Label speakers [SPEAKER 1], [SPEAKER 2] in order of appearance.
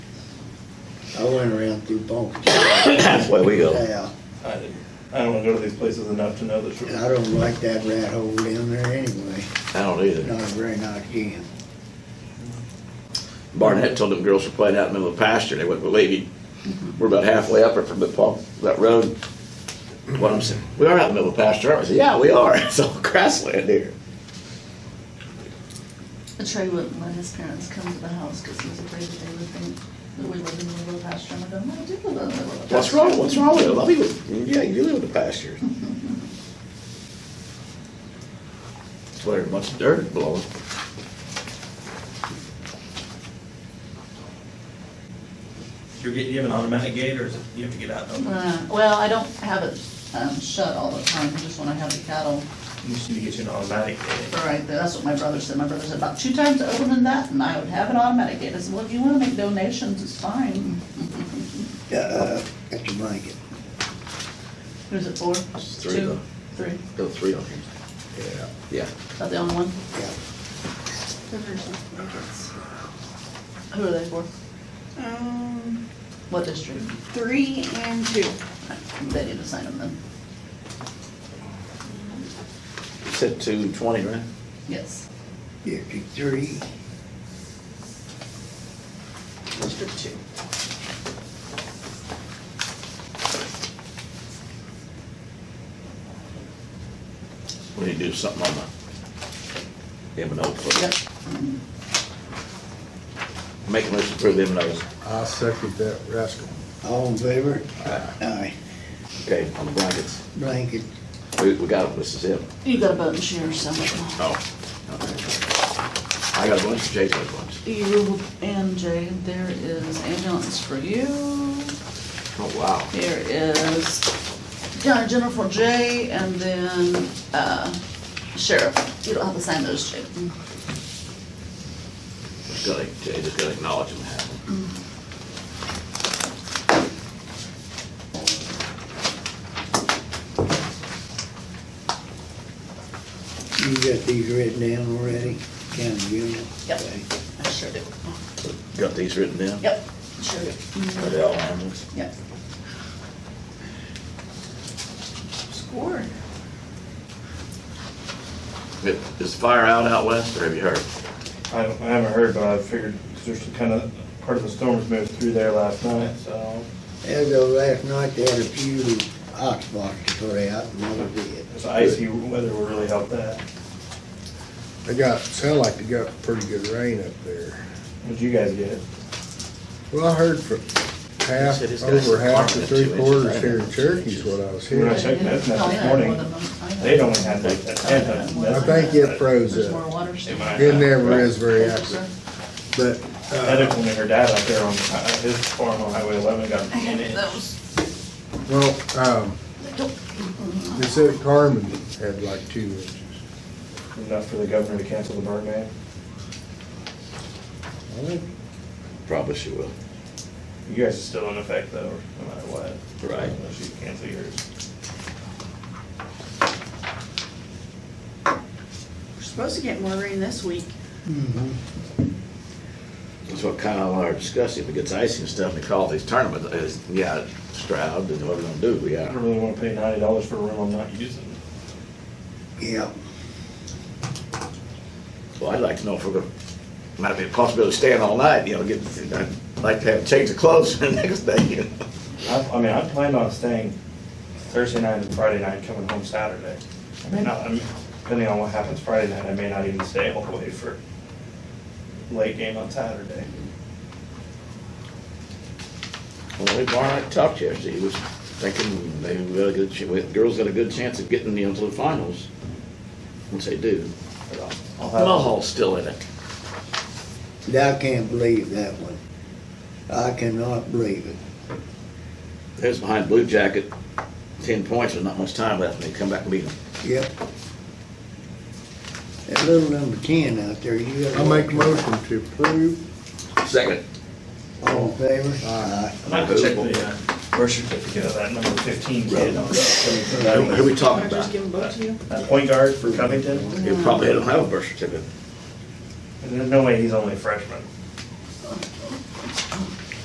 [SPEAKER 1] I went around through Bunker.
[SPEAKER 2] That's the way we go.
[SPEAKER 1] Yeah,
[SPEAKER 3] I didn't, I don't wanna go to these places enough to know the
[SPEAKER 1] and
[SPEAKER 3] truth.
[SPEAKER 1] I don't like that rat hole down there anyway.
[SPEAKER 2] I don't either.
[SPEAKER 1] Not a very nice den.
[SPEAKER 2] Barnett told them girls were playing out in the middle of the pasture, they wouldn't believe you. We're about halfway up there from the Paul, that road. One of them said, we are out in the middle of the pasture, aren't we? I said, yeah, we are, it's all grassland here.
[SPEAKER 4] Trey wouldn't let his parents come to the house because he was afraid that they would think that we lived in the middle of pasture. And I don't want to do live in the middle of
[SPEAKER 2] What's
[SPEAKER 4] pasture.
[SPEAKER 2] wrong, what's wrong with it? I mean, yeah, you do live in the pasture. That's where much dirt blowing.
[SPEAKER 3] You're getting, you have an automatic gate, or is it, you have to get out? though?
[SPEAKER 4] Uh, Well, I don't have it um, shut all the time, just when I have the cattle.
[SPEAKER 3] You just need to get you an automatic gate.
[SPEAKER 4] All right, that's what my brother said. My brother said about two times I opened that and I would have it automatic. gate. I said, well, if you want to make donations, it's fine.
[SPEAKER 1] Uh, that's a blanket.
[SPEAKER 4] Who's it for?
[SPEAKER 2] three of
[SPEAKER 4] Two?
[SPEAKER 2] them.
[SPEAKER 4] Three?
[SPEAKER 2] Go three on him.
[SPEAKER 1] Yeah.
[SPEAKER 2] Yeah.
[SPEAKER 4] Is that the only one?
[SPEAKER 1] Yeah.
[SPEAKER 4] Who are they for?
[SPEAKER 5] Um,
[SPEAKER 4] What district?
[SPEAKER 5] three and two.
[SPEAKER 4] They need to sign them then.
[SPEAKER 2] You said two twenty, right?
[SPEAKER 4] Yes.
[SPEAKER 1] District three,
[SPEAKER 4] District two.
[SPEAKER 2] We need to do something on the M and O. for-
[SPEAKER 4] Yep.
[SPEAKER 2] Make a motion to approve M and O's.
[SPEAKER 6] I second that rascal.
[SPEAKER 1] all in favor? Aye.
[SPEAKER 2] Okay, on the blankets.
[SPEAKER 1] Blanket,
[SPEAKER 2] We, we got, this is it.
[SPEAKER 4] You got a button share somewhere.
[SPEAKER 2] Oh. I got a bunch, Jay's got a bunch.
[SPEAKER 4] You E, and Jay, there is ambulance for you.
[SPEAKER 2] Oh, wow.
[SPEAKER 4] Here is County General for Jay and then uh, Sheriff. You don't have to sign those, Jay.
[SPEAKER 2] Just gotta, Jay just gotta acknowledge them happened.
[SPEAKER 1] you got these written down already, county general?
[SPEAKER 4] Yep.
[SPEAKER 1] Okay.
[SPEAKER 4] I sure do.
[SPEAKER 2] Got these written down?
[SPEAKER 4] Yep, sure do.
[SPEAKER 2] Are they all animals?
[SPEAKER 4] Yep.
[SPEAKER 5] Scored.
[SPEAKER 2] Is fire out out west, or have you heard?
[SPEAKER 3] I don't, I haven't heard, but I figured, cause there's kind of, part of the storm's moved through there last night, so.
[SPEAKER 1] As of last night, they had a few ox boxes to put out, and another did.
[SPEAKER 3] This icy weather will really help that.
[SPEAKER 6] They got, sound like they got pretty good rain up there.
[SPEAKER 3] What'd you guys get?
[SPEAKER 6] Well, I heard from half,
[SPEAKER 2] He said he's got
[SPEAKER 6] over half
[SPEAKER 2] some
[SPEAKER 6] to
[SPEAKER 2] carpet,
[SPEAKER 6] three
[SPEAKER 2] two
[SPEAKER 6] quarters
[SPEAKER 2] inches.
[SPEAKER 6] here in Cherokee is what I was
[SPEAKER 3] When I
[SPEAKER 6] hearing.
[SPEAKER 3] checked that,
[SPEAKER 4] Oh,
[SPEAKER 3] this
[SPEAKER 4] yeah,
[SPEAKER 3] morning,
[SPEAKER 4] one of them. I know.
[SPEAKER 3] they don't have like a tenth of
[SPEAKER 6] I
[SPEAKER 3] that.
[SPEAKER 6] think it froze
[SPEAKER 4] There's more
[SPEAKER 6] up.
[SPEAKER 4] water still.
[SPEAKER 3] It might.
[SPEAKER 6] It never is very
[SPEAKER 4] Yes, sir.
[SPEAKER 6] accurate, but, uh,
[SPEAKER 3] Heather told me her dad out there on, uh, his farm on Highway eleven got
[SPEAKER 4] I
[SPEAKER 3] an
[SPEAKER 4] have
[SPEAKER 3] inch.
[SPEAKER 4] those.
[SPEAKER 6] well, um, they said Carmen had like two inches.
[SPEAKER 3] Enough for the governor to cancel the burn ban.
[SPEAKER 2] Probably she will.
[SPEAKER 3] You guys are still in effect though, no matter what.
[SPEAKER 2] Right.
[SPEAKER 3] Unless you cancel yours.
[SPEAKER 5] We're supposed to get more rain this week.
[SPEAKER 2] That's what kind of are discussing, if it gets icy and stuff, and they call these tournaments, uh, is, yeah, Stroud, and what we gonna do, we uh,
[SPEAKER 3] I
[SPEAKER 2] got.
[SPEAKER 3] don't really wanna pay ninety dollars for a room I'm not using.
[SPEAKER 1] Yep.
[SPEAKER 2] Well, I'd like to know if we're gonna, might be a possibility of staying all night, you know, get, I'd like to have, change the clothes the next day, you know.
[SPEAKER 3] I, I mean, I planned on staying Thursday night and Friday night, coming home Saturday. I may not, I'm- depending on what happens Friday night, I may not even stay all the way for late game on Saturday.
[SPEAKER 2] Well, we Barnett talked yesterday, he was thinking maybe we got a good, ch- we- girls got a good chance of getting, you know, to the finals, once they do. uh,
[SPEAKER 3] But I'll- I'll have-
[SPEAKER 2] Mulhall's still in it.
[SPEAKER 1] I can't believe that one. I cannot believe it.
[SPEAKER 2] There's behind Blue Jacket, ten points, with not much time left, and they come back and beat them.
[SPEAKER 1] Yep. That little number ten out there, you got.
[SPEAKER 6] I make a motion to approve.
[SPEAKER 2] Second.
[SPEAKER 1] All in favor?
[SPEAKER 6] Aye.
[SPEAKER 3] I'll have to check the uh, birth certificate of that number fifteen kid on
[SPEAKER 2] Who who
[SPEAKER 3] that.
[SPEAKER 2] we talking
[SPEAKER 5] Can I
[SPEAKER 2] about?
[SPEAKER 5] just give them both to you?
[SPEAKER 3] That point guard for Covington,
[SPEAKER 2] You probably don't have a birth certificate.
[SPEAKER 3] there's no way he's only a freshman.